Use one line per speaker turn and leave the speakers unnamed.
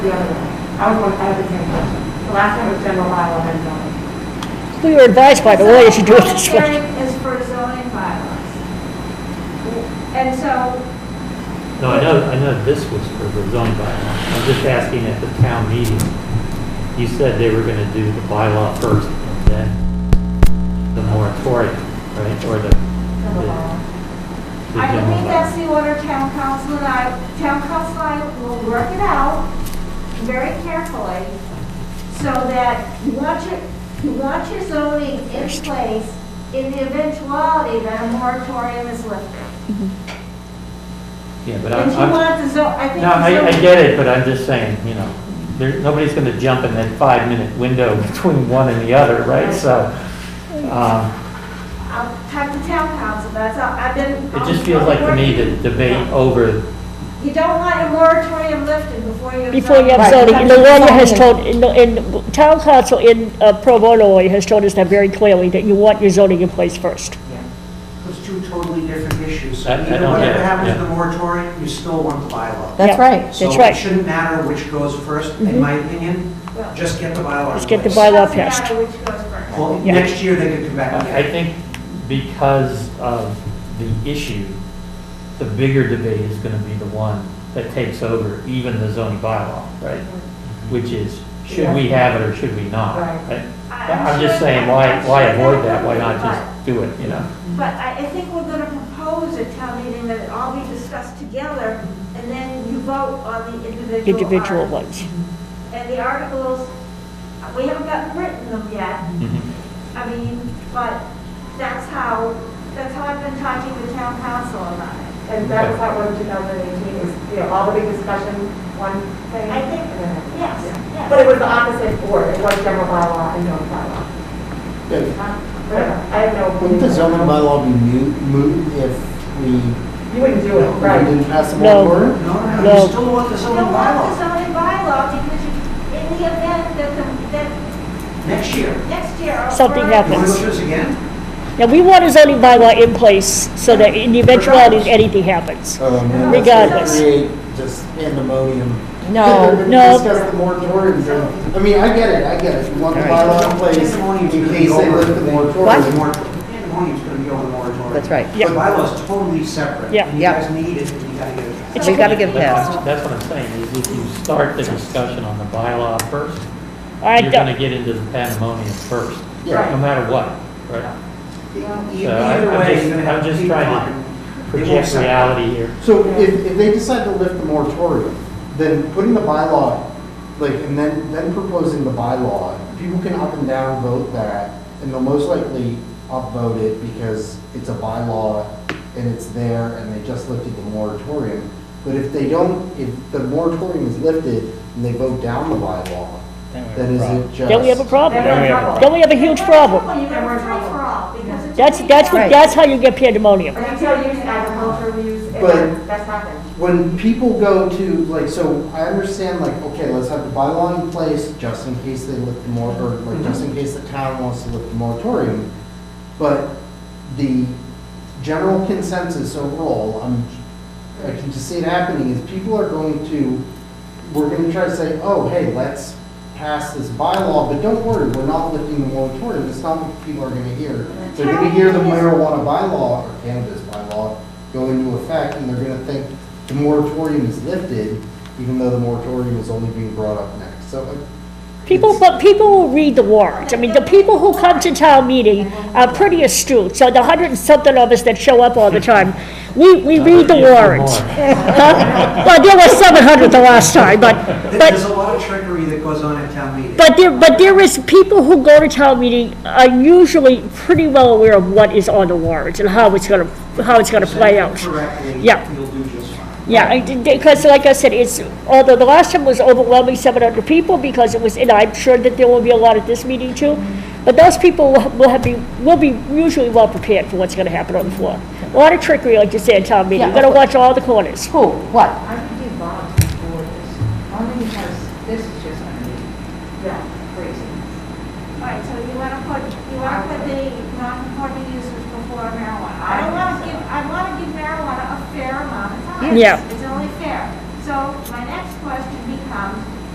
the other one. I was one, I had the same question. The last time was general bylaw and zoning.
We were advised by the lawyer to do it this
Public
way.
hearing is for zoning bylaws. And so,
No, I know, I know this was for the zoning bylaw. I'm just asking at the town meeting, you said they were gonna do the bylaw first and then the moratorium, right? Or the,
General bylaw.
the
I
general
believe that's
bylaw.
the order town council and I, town council and I will work it out very carefully so that you want your, you want your zoning in place in the eventuality that a moratorium is lifted.
Yeah, but I'm,
If you
I'm,
want the zo, I think.
no,
the
I, I
zoning-
get it, but I'm just saying, you know, there, nobody's gonna jump in that five-minute window between one and the other, right? So, um,
I'll talk to town council, that's all, I've been.
it just feels like to me to debate over
You don't want a moratorium lifted before you.
Before you have zoning, and the lawyer has told, and the- and town council in uh, pro bono lawyer has told us that very clearly, that you want your zoning in place first.
Yeah, Those two totally different issues.
I- I
Either
don't get
Whatever
it,
happens to
yeah.
the moratorium, you still want the bylaw.
Yeah.
That's right.
That's right. Mm-hmm.
So it shouldn't matter which goes first, in my opinion,
Well-
just get the bylaw.
Just get the
in place.
by law
Doesn't matter
passed.
which goes first.
Well,
Yeah.
next year they could come back
I I
again.
think because of the issue, the bigger debate is going to be the one that takes over even the zoning bylaw, right? Which is, should we have it or should we not?
Right.
right?
I-
I'm
sure
just saying,
that-
why,
I'm
why
sure
avoid
that
that? Why not
would be
just do it, you know?
fine. But I, I think we're gonna propose at town meeting that it all be discussed together, and then you vote on the individual.
Individual
articles.
ones.
And the articles, we haven't gotten written them yet, I mean, but that's how, that's how I've been talking to town council about it.
And that was how it was in 2018, is, you know, all the big discussion, one thing.
I think-
and then-
Yes, yes.
But it was the opposite board, it was general bylaw and zoning bylaw.
Yeah,
Huh? Whatever. I have no.
Wouldn't the zoning
belief.
bylaw be moot, moot if we
You wouldn't do it,
we
right?
didn't pass the Um,
No.
moratorium?
No,
No.
no, you still want the
You
zoning
don't want the
bylaw
zoning bylaw because you, in the event that, the that
next year.
next year. or
Something
for-
You want to
happens.
do this again?
Now, we want a zoning bylaw in place so that in the eventuality that anything happens.
Um, and that's
Regardless.
Create just pandemonium.
No,
no.
Discuss the moratorium thing. I mean, I get it, I get it. You want the bylaw in place
Pandemonium's
Uh, in
gonna be
case they
over
lift the
the-
moratorium.
Mor- Pandemonium's going to be over the moratorium.
that's right.
Yeah.
The bylaw's totally separate.
Yeah.
And you
Yeah.
guys need it, and you got to get it.
It's got to get
That's-
passed.
That's what I'm saying, is if you start the discussion on the bylaw first,
I
you're
don't-
going to get into the pandemonium first, no
Yeah.
matter what, right?
E-
So I-
Either
Uh, I'm
way,
just-
you're going to
I'm
have
just
people
trying to
on. They won't
Project
separate.
reality here.
So if, if they decide to lift the moratorium, then putting the bylaw, like, and then, then proposing the bylaw, people can up and down vote that, and they'll most likely upvote it because it's a bylaw and it's there and they just lifted the moratorium. But if they don't, if the moratorium is lifted and they vote down the bylaw, then is it just?
Then we have a problem.
Then we have trouble.
Then we have a huge problem.
You got a free-for-all because it's.
That's, that's what,
Right.
that's how you get pandemonium.
Retail use, agricultural use, and
But-
then that's happened.
when people go to, like, so I understand, like, okay, let's have the bylaw in place just in case they lift the mor, or like, just in case the town wants to lift the moratorium. But the general consensus overall, I'm, I can just see it happening, is people are going to, we're gonna try to say, oh, hey, let's pass this bylaw, but don't worry, we're not lifting the moratorium, it's not what people are gonna hear. They're gonna hear the marijuana bylaw, or cannabis bylaw, go into effect, and they're gonna think the moratorium is lifted, even though the moratorium is only being brought up next, so. like,
People,
it's-
but people will read the warrant. I mean, the people who come to town meeting are pretty astute. So the hundred and something of us that show up all the time, we, we read the
Yes, no
warrant.
more.
Huh? Well, there was seven hundred the last time, but,
There's
but,
a lot of trickery that goes on at town meeting.
but there, but there is, people who go to town meeting are usually pretty well aware of what is on the warrant and how it's gonna, how it's gonna play out.
Correctly,
Yeah.
you'll do just fine.
Yeah, because like I said, it's, although the last time was overwhelming, 700 people, because it was, and I'm sure that there will be a lot at this meeting too, but those people will will have, be will be usually well prepared for what's going to happen on the floor. A lot of trickery, like you say, in town meeting,
Yeah,
you're going to
of course.
watch all the corners.
Who, what?
I would do Bob's before this, only because this is just gonna be
Yeah.
crazy.
Right, so you wanna put, you wanna put the non-conforming uses before marijuana. I wanna give, I wanna give marijuana a fair amount of time.
Yeah.
It's only fair. So my next question becomes,